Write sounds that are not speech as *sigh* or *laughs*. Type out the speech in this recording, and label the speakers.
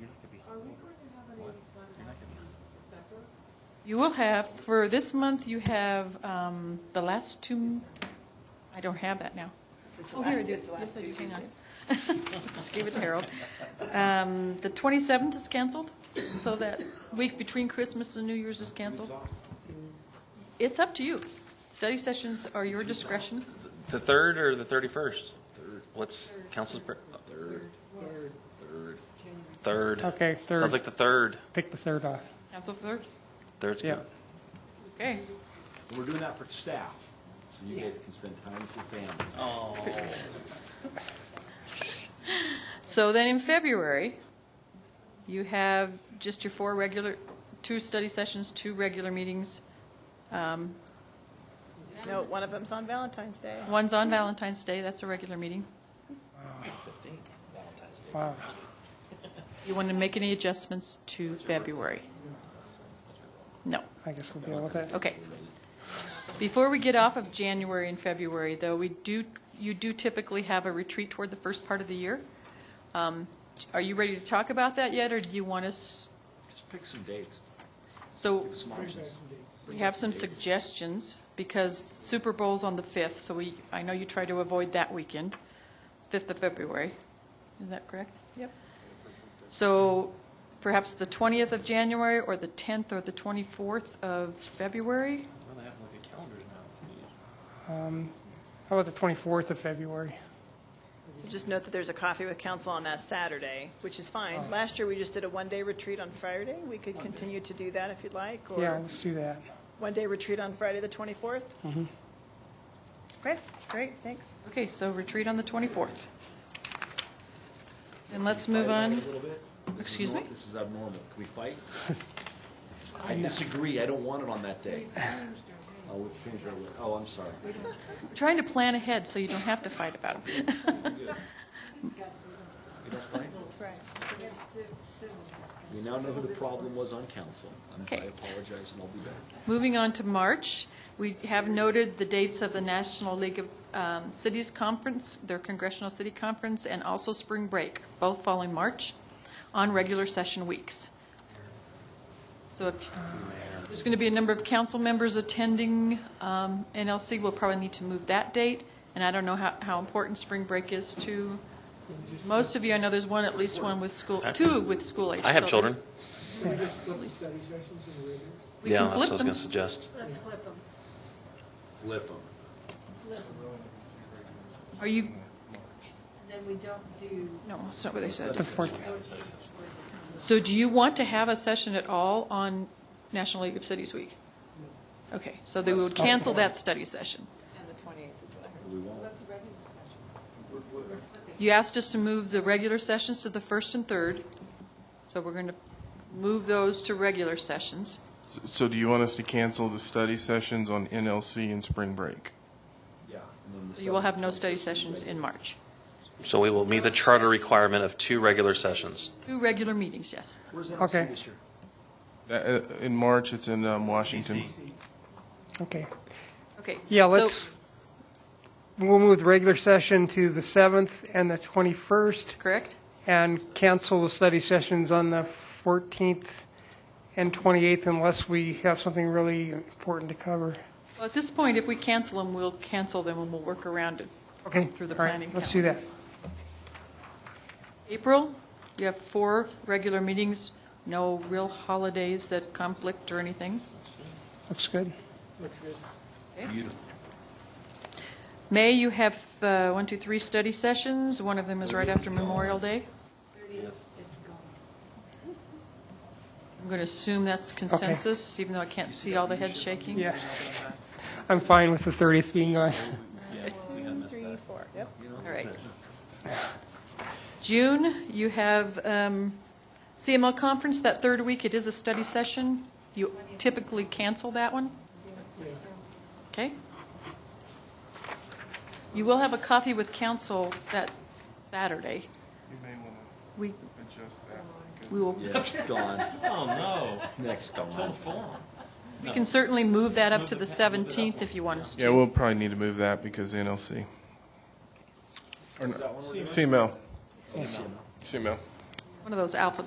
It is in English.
Speaker 1: Are we going to have any time after this December?
Speaker 2: You will have, for this month, you have um, the last two, I don't have that now.
Speaker 3: This is the
Speaker 2: Oh, here
Speaker 3: last,
Speaker 2: it
Speaker 3: it's
Speaker 2: is.
Speaker 3: the last
Speaker 2: Yes, I
Speaker 3: two
Speaker 2: do. Hang on. *laughs*
Speaker 3: Tuesdays.
Speaker 2: Just gave it to Harold. Um, The 27th is canceled, so that week between Christmas and New Year's is canceled. It's up to you. Study sessions are your discretion.
Speaker 4: The third or the thirty-first? What's council's? Third. Third. Third.
Speaker 5: Okay, third.
Speaker 4: Sounds like the third.
Speaker 5: Take the third off.
Speaker 2: Council third?
Speaker 4: Third's
Speaker 5: Yeah.
Speaker 4: good.
Speaker 2: Okay.
Speaker 6: We're doing that for staff, so you guys can spend time with your family.
Speaker 2: So then in February, you have just your four regular, two study sessions, two regular meetings. Um,
Speaker 3: No, one of them's on Valentine's Day.
Speaker 2: One's on Valentine's Day, that's a regular meeting.
Speaker 5: Wow.
Speaker 2: You want to make any adjustments to February? No.
Speaker 5: I guess we'll deal with it.
Speaker 2: Okay. Before we get off of January and February, though, we do, you do typically have a retreat toward the first part of the year. Um, Are you ready to talk about that yet, or do you want us,
Speaker 6: Just pick some dates,
Speaker 2: so
Speaker 6: some options.
Speaker 2: we have some suggestions, because Super Bowl's on the 5th, so we, I know you try to avoid that weekend, 5th of February. Is that correct?
Speaker 3: Yep.
Speaker 2: So perhaps the 20th of January, or the 10th, or the 24th of February?
Speaker 4: Well, they have to look at calendars now.
Speaker 5: How about the 24th of February?
Speaker 3: So just note that there's a coffee with council on that Saturday, which is fine. Last year, we just did a one-day retreat on Friday. We could continue to do that if you'd like,
Speaker 5: Yeah,
Speaker 3: or
Speaker 5: let's do that.
Speaker 3: one-day retreat on Friday, the 24th. Okay, great, thanks.
Speaker 2: Okay, so retreat on the 24th. And let's move on.
Speaker 6: A little bit? This is
Speaker 2: Excuse
Speaker 6: nor-
Speaker 2: me?
Speaker 6: This is abnormal. Can we fight? I disagree. I don't want it on that day. Oh, we changed our, li- oh, I'm sorry.
Speaker 2: Trying to plan ahead so you don't have to fight about them. *laughs*
Speaker 6: You don't fight?
Speaker 3: That's right.
Speaker 1: We have civ- civil discussion.
Speaker 6: We now know who the problem was on council. and I
Speaker 2: Okay.
Speaker 6: apologize and I'll be back.
Speaker 2: Moving on to March, we have noted the dates of the National League of um, Cities Conference, their Congressional City Conference, and also spring break, both fall in March, on regular session weeks. So if, there's going to be a number of council members attending um, NLC, we'll probably need to move that date, and I don't know how, how important spring break is to most of you. I know there's one, at least one with school, two with school age.
Speaker 4: I have children.
Speaker 2: We can
Speaker 4: Yeah, that's
Speaker 2: flip
Speaker 4: what I was
Speaker 2: them.
Speaker 4: gonna suggest.
Speaker 1: Let's flip them.
Speaker 6: Flip them.
Speaker 1: Flip them.
Speaker 2: Are you,
Speaker 1: And then we don't do,
Speaker 2: no, that's not what they said.
Speaker 5: The 14th.
Speaker 2: So do you want to have a session at all on National League of Cities Week? Okay, so they would cancel that study session.
Speaker 3: And the 28th is what I heard.
Speaker 6: We won't.
Speaker 2: You asked us to move the regular sessions to the first and third, so we're going to move those to regular sessions.
Speaker 7: So do you want us to cancel the study sessions on NLC and spring break?
Speaker 6: Yeah. and then the
Speaker 2: So You will have
Speaker 6: seventh,
Speaker 2: no study sessions in March.
Speaker 4: So we will meet the charter requirement of two regular sessions.
Speaker 2: Two regular meetings, yes.
Speaker 6: Where's
Speaker 5: Okay.
Speaker 6: NLC this year?
Speaker 7: Uh, uh, In March, it's in um, Washington.
Speaker 5: Okay.
Speaker 2: Okay.
Speaker 5: Yeah,
Speaker 2: so-
Speaker 5: let's, we'll move the regular session to the 7th and the 21st
Speaker 2: Correct?
Speaker 5: and cancel the study sessions on the 14th and 28th unless we have something really important to cover.
Speaker 2: Well, at this point, if we cancel them, we'll cancel them and we'll work around it.
Speaker 5: Okay.
Speaker 2: Through the
Speaker 5: all right,
Speaker 2: planning
Speaker 5: Let's do that.
Speaker 2: April, you have four regular meetings, no real holidays that conflict or anything.
Speaker 5: Looks good.
Speaker 2: May, you have uh, one, two, three study sessions. One of them is right after Memorial Day.
Speaker 1: thirtieth is gone.
Speaker 2: I'm going to assume that's consensus, even though I can't see all the head shaking.
Speaker 5: Yeah. *laughs* I'm fine with the 30th being on.
Speaker 3: Three, four, yep.
Speaker 2: All right. June, you have um, CML conference that third week. It is a study session. You typically cancel that one? Okay. You will have a coffee with council that Saturday.
Speaker 7: You may want
Speaker 2: We,
Speaker 7: to adjust that.
Speaker 2: we will,
Speaker 6: Yeah, it's gone.
Speaker 8: Oh, no.
Speaker 6: That's gone.
Speaker 8: Full form.
Speaker 2: we can certainly move that up to the 17th if you want us to.
Speaker 7: Yeah, we'll probably need to move that because NLC. Or no- CML. CML.
Speaker 2: One of those alphabet